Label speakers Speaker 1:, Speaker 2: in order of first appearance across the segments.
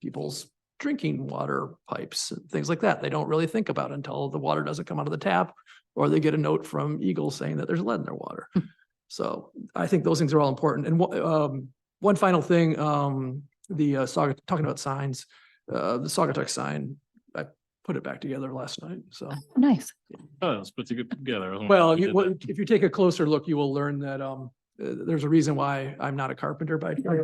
Speaker 1: people's drinking water pipes, and things like that. They don't really think about until the water doesn't come out of the tap or they get a note from Eagle saying that there's lead in their water.
Speaker 2: Hmm.
Speaker 1: So I think those things are all important. And one, um, one final thing, um, the, uh, Saugatuck, talking about signs, uh, the Saugatuck sign, I put it back together last night, so.
Speaker 3: Nice.
Speaker 2: Oh, let's put it together. I don't know
Speaker 1: Well,
Speaker 2: if we
Speaker 1: you,
Speaker 2: Hmm. did
Speaker 1: well,
Speaker 2: that.
Speaker 1: if you take a closer look, you will learn that, um, uh, there's a reason why I'm not a carpenter by. trade.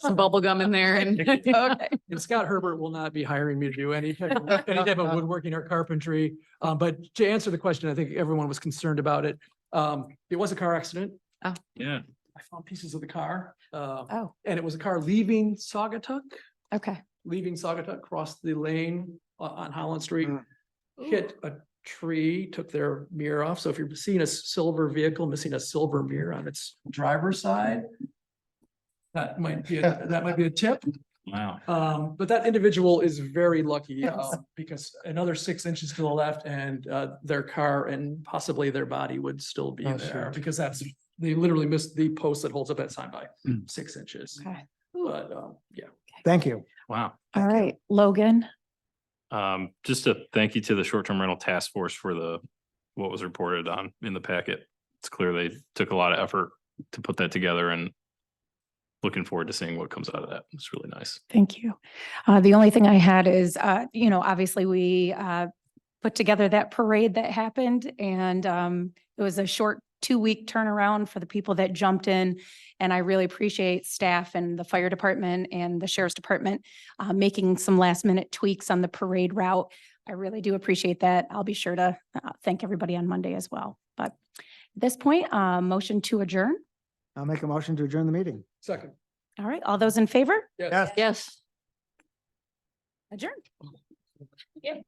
Speaker 3: Some bubble gum in there and. Okay.
Speaker 1: And Scott Herbert will not be hiring me to do any, type of- any type of woodworking or carpentry. Um, but to answer the question, I think everyone was concerned about it. Um, it was a car accident.
Speaker 2: Yeah,
Speaker 1: I found pieces of the car, uh,
Speaker 3: Oh,
Speaker 1: and it was a car leaving Saugatuck,
Speaker 3: okay.
Speaker 1: leaving Saugatuck, crossed the lane o- on Holland Street,
Speaker 4: Mm.
Speaker 1: hit a tree, took their mirror off. So if you're seeing a s- silver vehicle missing a silver mirror on its driver's side, that might be, a- that might be a tip.
Speaker 2: wow.
Speaker 1: Um, but that individual is very lucky, um, because another six inches to the left and, uh, their car and possibly their body would still be
Speaker 4: Oh,
Speaker 1: there.
Speaker 4: shoot.
Speaker 1: Because that's, they literally missed the post that holds up that sign by
Speaker 2: Mm.
Speaker 1: six inches.
Speaker 3: Okay.
Speaker 1: But, um, yeah.
Speaker 4: Thank you.
Speaker 2: Wow.
Speaker 3: All right, Logan.
Speaker 2: Um, just a thank you to the short-term rental task force for the, what was reported on in the packet. It's clear they took a lot of effort to put that together and looking forward to seeing what comes out of that. It's really nice.
Speaker 3: Thank you. Uh, the only thing I had is, uh, you know, obviously we, uh, put together that parade that happened and, um, it was a short two-week turnaround for the people that jumped in. And I really appreciate staff and the fire department and the sheriff's department, uh, making some last-minute tweaks on the parade route. I really do appreciate that. I'll be sure to, uh, thank everybody on Monday as well. But at this point, uh, motion to adjourn.
Speaker 4: I'll make a motion to adjourn the meeting.
Speaker 1: Second.
Speaker 3: All right, all those in favor?
Speaker 1: Yes.
Speaker 4: Yes.
Speaker 3: Yes. Adjourned.